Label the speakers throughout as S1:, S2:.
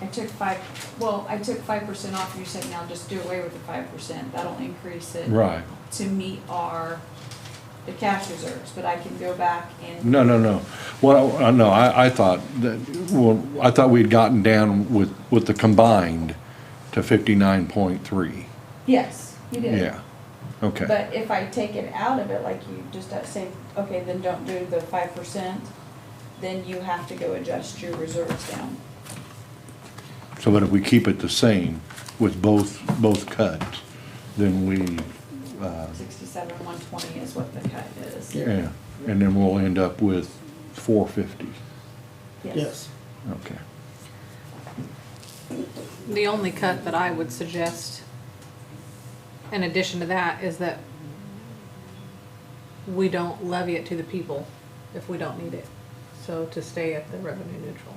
S1: I took five, well, I took five percent off, and you said now just do away with the five percent, that'll increase it
S2: Right.
S1: to meet our, the cash reserves, but I can go back and,
S2: No, no, no. Well, I- uh, no, I, I thought that, well, I thought we'd gotten down with, with the combined to fifty-nine point three.
S1: yes, you did.
S2: Yeah, okay.
S1: But if I take it out of it, like you just uh, say, okay, then don't do the five percent, then you have to go adjust your reserves down.
S2: So, but if we keep it the same with both, both cuts, then we, uh,
S1: Sixty-seven, one twenty is what the cut is.
S2: yeah, and then we'll end up with four fifty.
S3: Yes.
S2: Okay.
S4: The only cut that I would suggest, in addition to that, is that we don't levy it to the people if we don't need it. So to stay at the revenue neutral,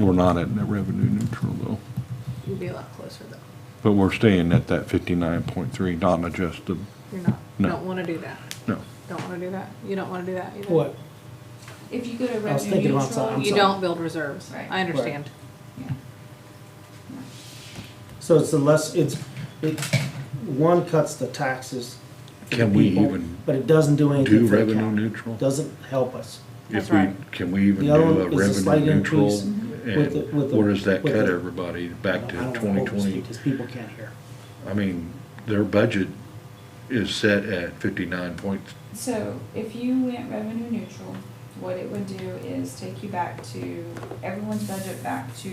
S2: We're not at net revenue neutral though,
S4: you'd be a lot closer though.
S2: but we're staying at that fifty-nine point three, not adjusted,
S4: You're not,
S2: No.
S4: don't wanna do that.
S2: no.
S4: Don't wanna do that. You don't wanna do that either.
S3: What?
S1: If you go to
S3: I was
S1: revenue
S3: thinking about that.
S1: neutral,
S3: I'm
S4: You
S3: sorry.
S4: don't build reserves.
S1: Right.
S4: I understand.
S1: yeah.
S3: So it's the less, it's, it, one cuts the taxes. for the
S2: Can we
S3: people,
S2: even
S3: But it doesn't do
S2: Do
S3: anything for the
S2: revenue
S3: county.
S2: neutral?
S3: Doesn't help us.
S4: That's
S2: If we,
S4: right.
S2: can we even do
S3: The other
S2: a
S3: one is a slight
S2: revenue neutral?
S3: increase with the- with
S2: And
S3: the-
S2: where does that
S3: with
S2: cut
S3: the-
S2: everybody back to
S3: I don't wanna
S2: twenty
S3: overspeak
S2: twenty?
S3: Because people can't hear.
S2: I mean, their budget is set at fifty-nine point,
S1: So if you went revenue neutral, what it would do is take you back to, everyone's budget back to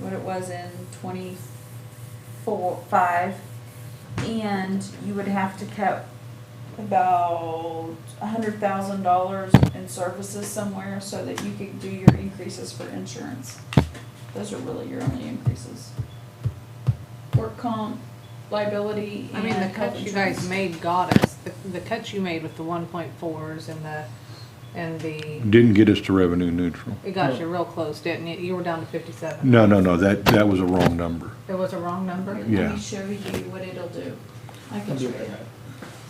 S1: what it was in twenty-four, five. And you would have to cut about a hundred thousand dollars in services somewhere so that you could do your increases for insurance. Those are really your only increases. Work comp, liability,
S4: I mean, the
S1: and health
S4: cuts you guys
S1: insurance.
S4: made got us, the, the cuts you made with the one point fours and the, and the,
S2: didn't get us to revenue neutral.
S4: it got you real close, didn't it? You were down to fifty-seven.
S2: No, no, no, that, that was a wrong number.
S4: It was a wrong number?
S1: Let
S2: Yeah.
S1: me show you what it'll do. I can show you.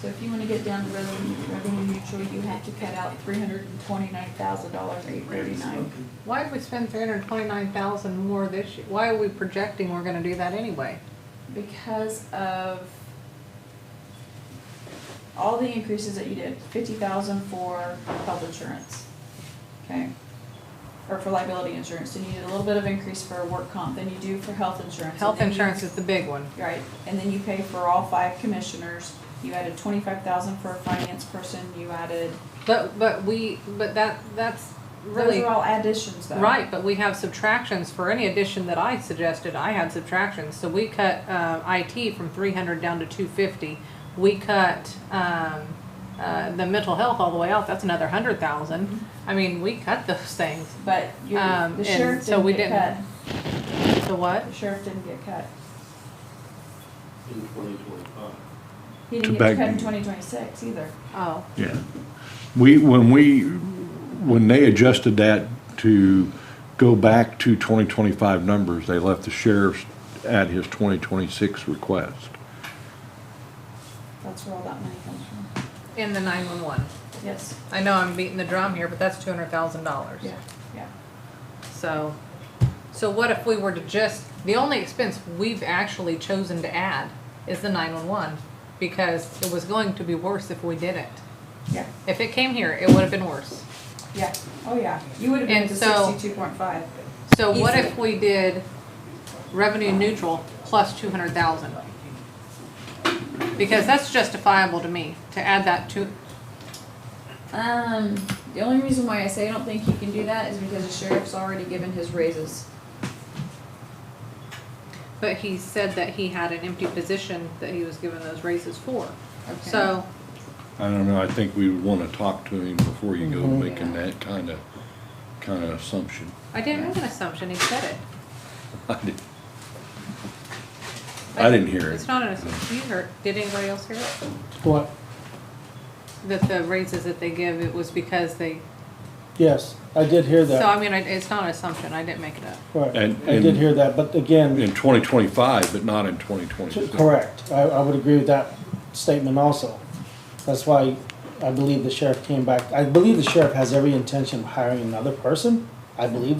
S1: So if you wanna get down to revenue, revenue neutral, you have to cut out three hundred and twenty-nine thousand dollars, eight thirty-nine.
S4: Why did we spend three hundred and twenty-nine thousand more this year? Why are we projecting we're gonna do that anyway?
S1: Because of all the increases that you did, fifty thousand for health insurance, okay? Or for liability insurance, then you did a little bit of increase for work comp, then you do for health insurance. and
S4: Health
S1: then you-
S4: insurance is the big one.
S1: Right, and then you pay for all five commissioners, you added twenty-five thousand for a finance person, you added,
S4: But, but we, but that, that's
S1: those
S4: really,
S1: are all additions though.
S4: right, but we have subtractions for any addition that I suggested, I had subtractions. So we cut, uh, IT from three hundred down to two fifty. We cut, um, uh, the mental health all the way out, that's another hundred thousand. I mean, we cut those things.
S1: But your,
S4: Um,
S1: the
S4: and
S1: sheriff
S4: so we
S1: didn't get
S4: didn't-
S1: cut,
S4: The what?
S1: the sheriff didn't get cut,
S5: in twenty twenty-five.
S1: he didn't
S2: To
S1: get
S2: back-
S1: cut in twenty twenty-six either.
S4: Oh,
S2: Yeah. We, when we, when they adjusted that to go back to twenty twenty-five numbers, they left the sheriff's at his twenty twenty-six request.
S1: That's where all that money comes from,
S4: in the nine-one-one.
S1: yes,
S4: I know I'm beating the drum here, but that's two hundred thousand dollars.
S1: yeah, yeah.
S4: So, so what if we were to just, the only expense we've actually chosen to add is the nine-one-one, because it was going to be worse if we didn't.
S1: Yeah,
S4: If it came here, it would have been worse.
S1: yeah, oh yeah, you would have been
S4: And
S1: to
S4: so-
S1: sixty-two point five,
S4: So what if we did revenue neutral plus two hundred thousand? Because that's justifiable to me, to add that to,
S1: Um, the only reason why I say I don't think you can do that is because the sheriff's already given his raises.
S4: but he said that he had an empty position that he was given those raises for.
S1: Okay.
S4: So,
S2: I don't know, I think we would wanna talk to him before you go
S3: Mhm.
S2: making that kinda, kinda assumption.
S4: I didn't make an assumption, he said it.
S2: I didn't- I didn't hear it.
S4: It's not an assumption, you heard, did anybody else hear it?
S3: What?
S4: That the raises that they give, it was because they,
S3: Yes, I did hear
S4: so
S3: that.
S4: I mean, I- it's not an assumption, I didn't make it up.
S3: Right,
S2: And-
S3: I did
S2: and-
S3: hear that, but again,
S2: In twenty twenty-five, but not in twenty
S3: t-
S2: twenty-six.
S3: correct. I, I would agree with that statement also. That's why I believe the sheriff came back. I believe the sheriff has every intention of hiring another person. I believe